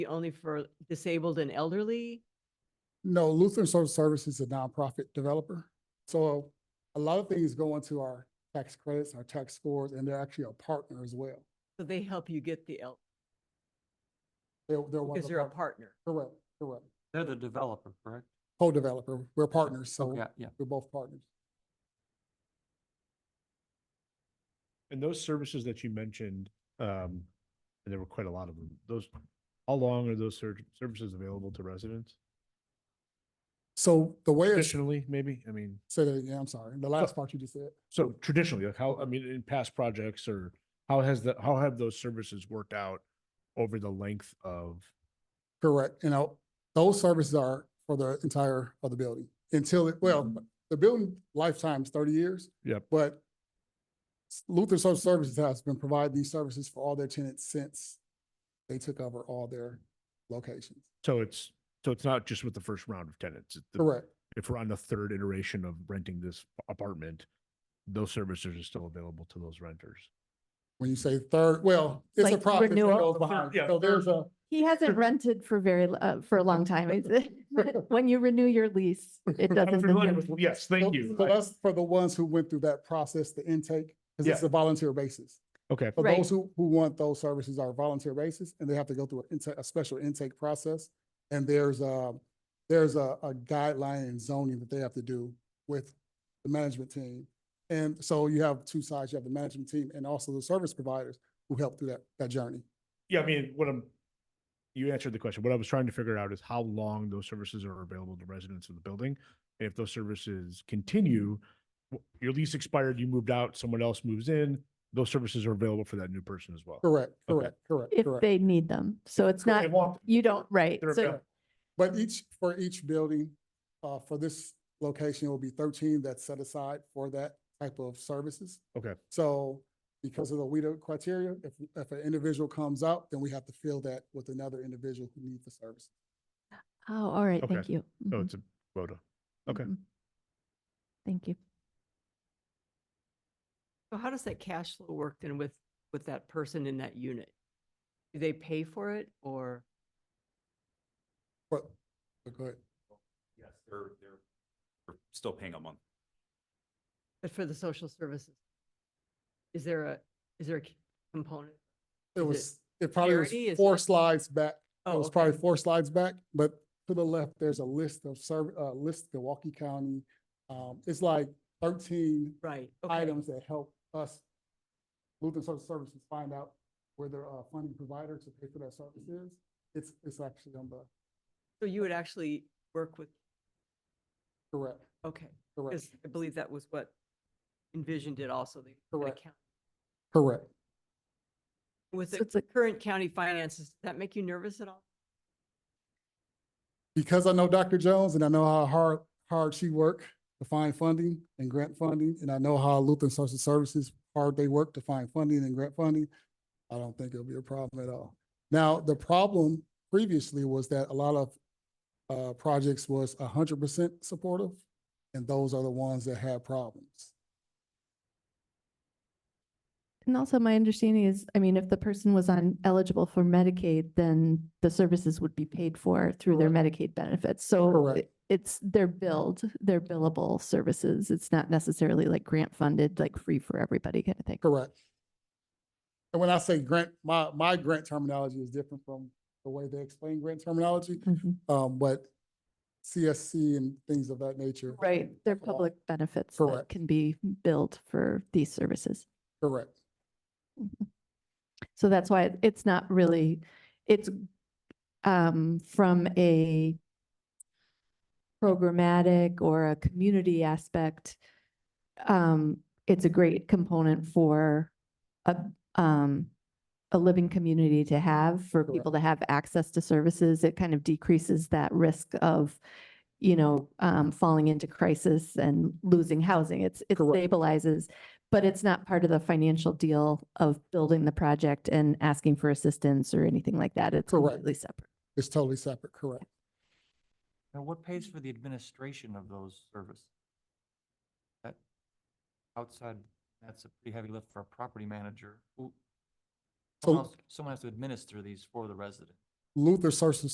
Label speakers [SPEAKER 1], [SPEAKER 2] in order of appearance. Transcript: [SPEAKER 1] only for disabled and elderly?
[SPEAKER 2] No, Lutheran Social Services is a nonprofit developer. So a lot of things go into our tax credits, our tax scores, and they're actually a partner as well.
[SPEAKER 1] So they help you get the el,
[SPEAKER 2] They're, they're one of
[SPEAKER 1] because
[SPEAKER 2] the.
[SPEAKER 1] they're a
[SPEAKER 2] part-
[SPEAKER 1] partner.
[SPEAKER 2] Correct, correct.
[SPEAKER 3] They're the developer, correct?
[SPEAKER 2] Co-developer, we're partners, so
[SPEAKER 3] Okay, yeah.
[SPEAKER 2] we're both partners.
[SPEAKER 4] And those services that you mentioned, um, and there were quite a lot of them, those, how long are those ser- services available to residents?
[SPEAKER 2] So the way, it's-
[SPEAKER 4] Traditionally, maybe, I mean,
[SPEAKER 2] say that again, I'm sorry, the last part you just said.
[SPEAKER 4] so traditionally, like how, I mean, in past projects or how has the, how have those services worked out over the length of,
[SPEAKER 2] Correct. You know, those services are for the entire of the building until, it well, the building lifetime is thirty years.
[SPEAKER 4] Mm-hmm. Yep.
[SPEAKER 2] But s- Lutheran Social Services has been providing these services for all their tenants since they took over all their locations.
[SPEAKER 4] so it's, so it's not just with the first round of tenants. it's the-
[SPEAKER 2] Correct.
[SPEAKER 4] If we're on the third iteration of renting this apartment, those services are still available to those renters.
[SPEAKER 2] When you say third, well, it's a
[SPEAKER 5] Like
[SPEAKER 2] process that
[SPEAKER 5] renewal.
[SPEAKER 2] goes behind.
[SPEAKER 4] Yeah,
[SPEAKER 2] So there's a,
[SPEAKER 5] He hasn't rented for very, l- uh, for a long time. It's- When you renew your lease, it
[SPEAKER 4] I'm
[SPEAKER 5] doesn't.
[SPEAKER 4] familiar
[SPEAKER 5] renew.
[SPEAKER 4] with- Yes, thank you.
[SPEAKER 2] so
[SPEAKER 4] I-
[SPEAKER 2] that's for the ones who went through that process, the intake, because it's
[SPEAKER 4] Yeah.
[SPEAKER 2] a volunteer basis.
[SPEAKER 4] Okay,
[SPEAKER 2] For
[SPEAKER 5] Right.
[SPEAKER 2] those who, who want those services on a volunteer basis, and they have to go through an intake, a special intake process. And there's a, there's a, a guideline and zoning that they have to do with the management team. And so you have two sides, you have the management team and also the service providers who help through that, that journey.
[SPEAKER 4] Yeah, I mean, what I'm, you answered the question. What I was trying to figure out is how long those services are available to residents of the building. And if those services continue, w- your lease expired, you moved out, someone else moves in, those services are available for that new person as well.
[SPEAKER 2] Correct,
[SPEAKER 4] Okay.
[SPEAKER 2] correct, correct,
[SPEAKER 5] If
[SPEAKER 2] correct.
[SPEAKER 5] they need them. So it's
[SPEAKER 4] They
[SPEAKER 5] not,
[SPEAKER 4] want them.
[SPEAKER 5] you don't, right.
[SPEAKER 4] They're
[SPEAKER 5] So
[SPEAKER 4] available.
[SPEAKER 2] But each, for each building, uh, for this location, it will be thirteen that's set aside for that type of services.
[SPEAKER 4] Okay.
[SPEAKER 2] So because of the WIDA criteria, if, if an individual comes out, then we have to fill that with another individual who needs the service.
[SPEAKER 5] Oh, all right.
[SPEAKER 4] Okay.
[SPEAKER 5] Thank you.
[SPEAKER 4] So
[SPEAKER 5] Mhm,
[SPEAKER 4] Oh, it's a quota. okay.
[SPEAKER 5] mhm. Thank you.
[SPEAKER 1] So how does that cash flow work then with, with that person in that unit? Do they pay for it or?
[SPEAKER 2] But, but go ahead.
[SPEAKER 6] Yes, they're, they're, they're still paying a month.
[SPEAKER 1] But for the social services? Is there a, is there a c- component?
[SPEAKER 2] It
[SPEAKER 1] Is it
[SPEAKER 2] was, it probably
[SPEAKER 1] parity? Is
[SPEAKER 2] was four
[SPEAKER 1] that-
[SPEAKER 2] slides back. It
[SPEAKER 1] Oh,
[SPEAKER 2] was
[SPEAKER 1] okay.
[SPEAKER 2] probably four slides back, but to the left, there's a list of serv, uh, list Milwaukee County. Um, it's like thirteen
[SPEAKER 1] Right. okay.
[SPEAKER 2] items that help us, Lutheran Social Services, find out where their uh, funding provider to pay for that service is. It's, it's actually on the,
[SPEAKER 1] So you would actually work with,
[SPEAKER 2] correct,
[SPEAKER 1] okay,
[SPEAKER 2] correct,
[SPEAKER 1] because I believe that was what Envision did also. They had a
[SPEAKER 2] Correct.
[SPEAKER 1] count-
[SPEAKER 2] correct.
[SPEAKER 1] With
[SPEAKER 5] So
[SPEAKER 1] the
[SPEAKER 5] it's a-
[SPEAKER 1] current county finances, does that make you nervous at all?
[SPEAKER 2] Because I know Dr. Jones and I know how hard, hard she worked to find funding and grant funding, and I know how Lutheran Social Services, hard they work to find funding and grant funding, I don't think it'll be a problem at all. Now, the problem previously was that a lot of uh, projects was hundred percent supportive, and those are the ones that had problems.
[SPEAKER 5] And also my understanding is, I mean, if the person was on eligible for Medicaid, then the services would be paid for through their Medicaid benefits. So
[SPEAKER 2] Correct.
[SPEAKER 5] it- it's their billed, their billable services. It's not necessarily like grant funded, like free for everybody kind of thing.
[SPEAKER 2] Correct. And when I say grant, my, my grant terminology is different from the way they explain grant terminology,
[SPEAKER 5] Mhm.
[SPEAKER 2] um, but CSC and things of that nature.
[SPEAKER 5] Right, they're
[SPEAKER 2] Correct.
[SPEAKER 5] public benefits that
[SPEAKER 2] Correct.
[SPEAKER 5] can be billed for these services.
[SPEAKER 2] Correct,
[SPEAKER 5] So that's why it's not really, it's um, from a programmatic or a community aspect. Um, it's a great component for a um, a living community to have, for
[SPEAKER 2] Correct.
[SPEAKER 5] people to have access to services. It kind of decreases that risk of, you know, um, falling into crisis and losing housing. It's, it
[SPEAKER 2] Correct.
[SPEAKER 5] stabilizes. But it's not part of the financial deal of building the project and asking for assistance or anything like that. It's
[SPEAKER 2] Correct.
[SPEAKER 5] completely separate.
[SPEAKER 2] it's totally separate, correct.
[SPEAKER 3] Now, what pays for the administration of those services? That outside, that's a pretty heavy lift for a property manager. Who-
[SPEAKER 2] So-
[SPEAKER 3] Someone else- someone has to administer these for the resident.
[SPEAKER 2] Luther Social